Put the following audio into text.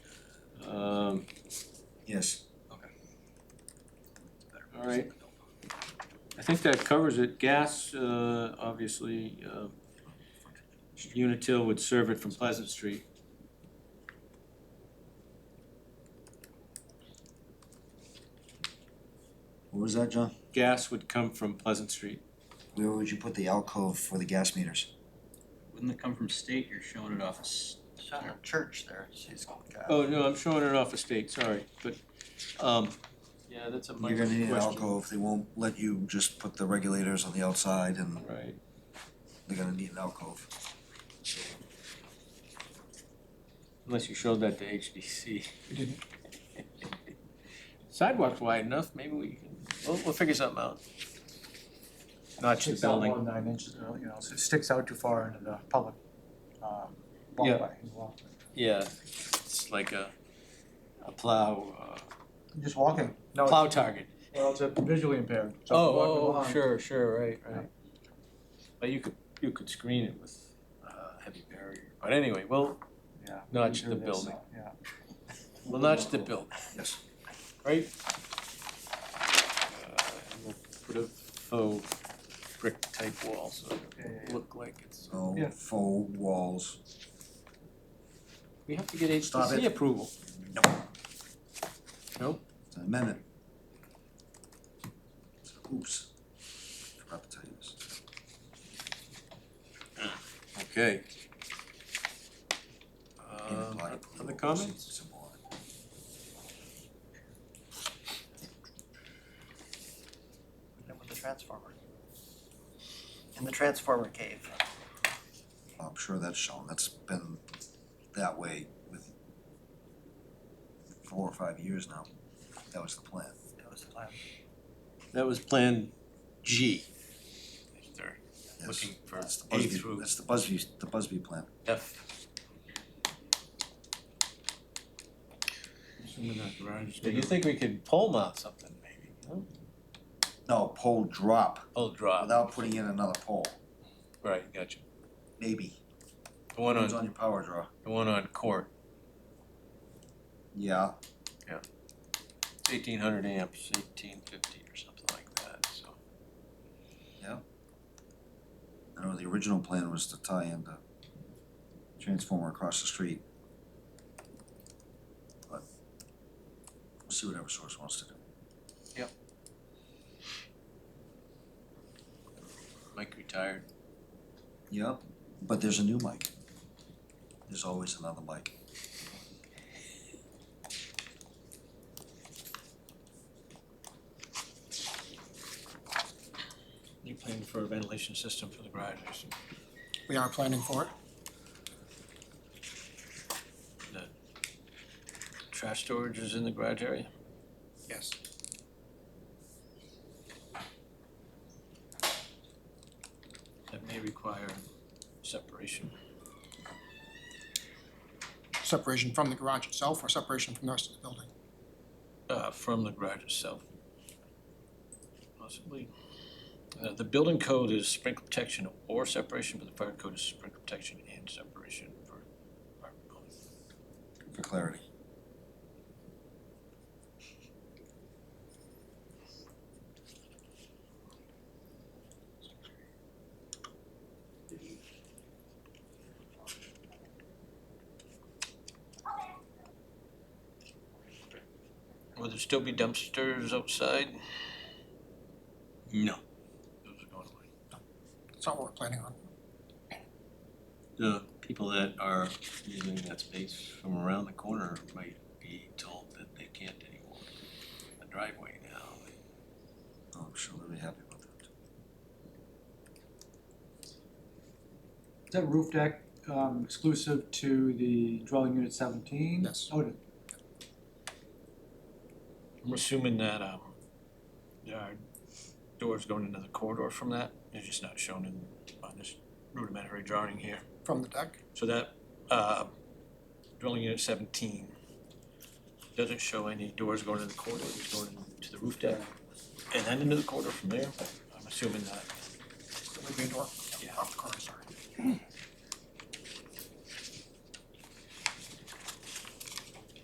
Um, Yes. All right. I think that covers it. Gas, uh, obviously, uh, Unitil would serve it from Pleasant Street. What was that, John? Gas would come from Pleasant Street. Where would you put the alcove for the gas meters? Wouldn't it come from state, you're showing it off as, It's on a church there, she's Oh, no, I'm showing it off estate, sorry, but, um, yeah, that's a You're minor gonna need an question. alcove, they won't let you just put the regulators on the outside and Right, they're gonna need an alcove. unless you showed that to HDC. Sidewalk's wide enough, maybe we can, we'll, we'll figure something out. Notch the Sticks out more building. than nine inches, or, you know, so it sticks out too far into the public, um, Yeah. walkway. walkway. Yeah, it's like a, a plow, Just walking, uh, no, plow it's- target. well, it's a visually impaired, so walking Oh, along. oh, sure, sure, right, right. right. But you could, you could screen it with uh heavy barrier, but anyway, we'll Yeah. notch the Sure, that's, building, uh, Yeah, we'll notch the building. Yes. right? Uh, and we'll Put a faux brick type wall, so yeah, yeah, it'll look like it's, So Yeah. faux walls. we have to get Stop HTC it. approval. No. Nope. It's an amendment. Oops. Forgot to tell you this. Okay. Um, And apply other approval comments? versus support. with the transformer. In the transformer cave. I'm sure that's shown, that's been that way with four or five years now. That was the plan. That was the plan. That was Plan G. They're Yes. looking for That's the A Busby, through that's the Busby, the Busby plan. F. You think we could pole mount something maybe, huh? No, pole drop Pole drop, without putting in another pole, right, gotcha. maybe. The one Depends on, on your power draw. the one on court, Yeah, eighteen hundred amps, eighteen fifty or something like that, so. I know the original plan was to tie in the transformer across the street. But we'll see what Eversource wants to do. Mike retired. Yeah, but there's a new mic. There's always another mic. You're planning for a ventilation system for the garages, We are planning for it. trash storage is in the garage area? Yes. That may require separation. Separation from the garage itself or separation from the rest of the building? uh, from the garage itself. Possibly. Uh, the building code is sprinkler protection or separation, but the fire code is sprinkler protection and separation for our building. for clarity. Will there still be dumpsters outside? No, Those are going away. That's not what we're planning on. the people that are using that space from around the corner might be told that they can't anymore. The driveway now, Oh, I'm sure they'll be happy about that. Is that roof deck, um, exclusive to the dwelling unit seventeen? Yes. Oh, it is. I'm assuming that, um, there are doors going into the corridor from that, they're just not shown in, on this rudimentary drawing here. From the deck, So that, uh, dwelling unit seventeen doesn't show any doors going into the corridor, it's going to the roof deck and then into the corridor from there, I'm assuming that. there would be a door. Yeah. Off the corner, sorry.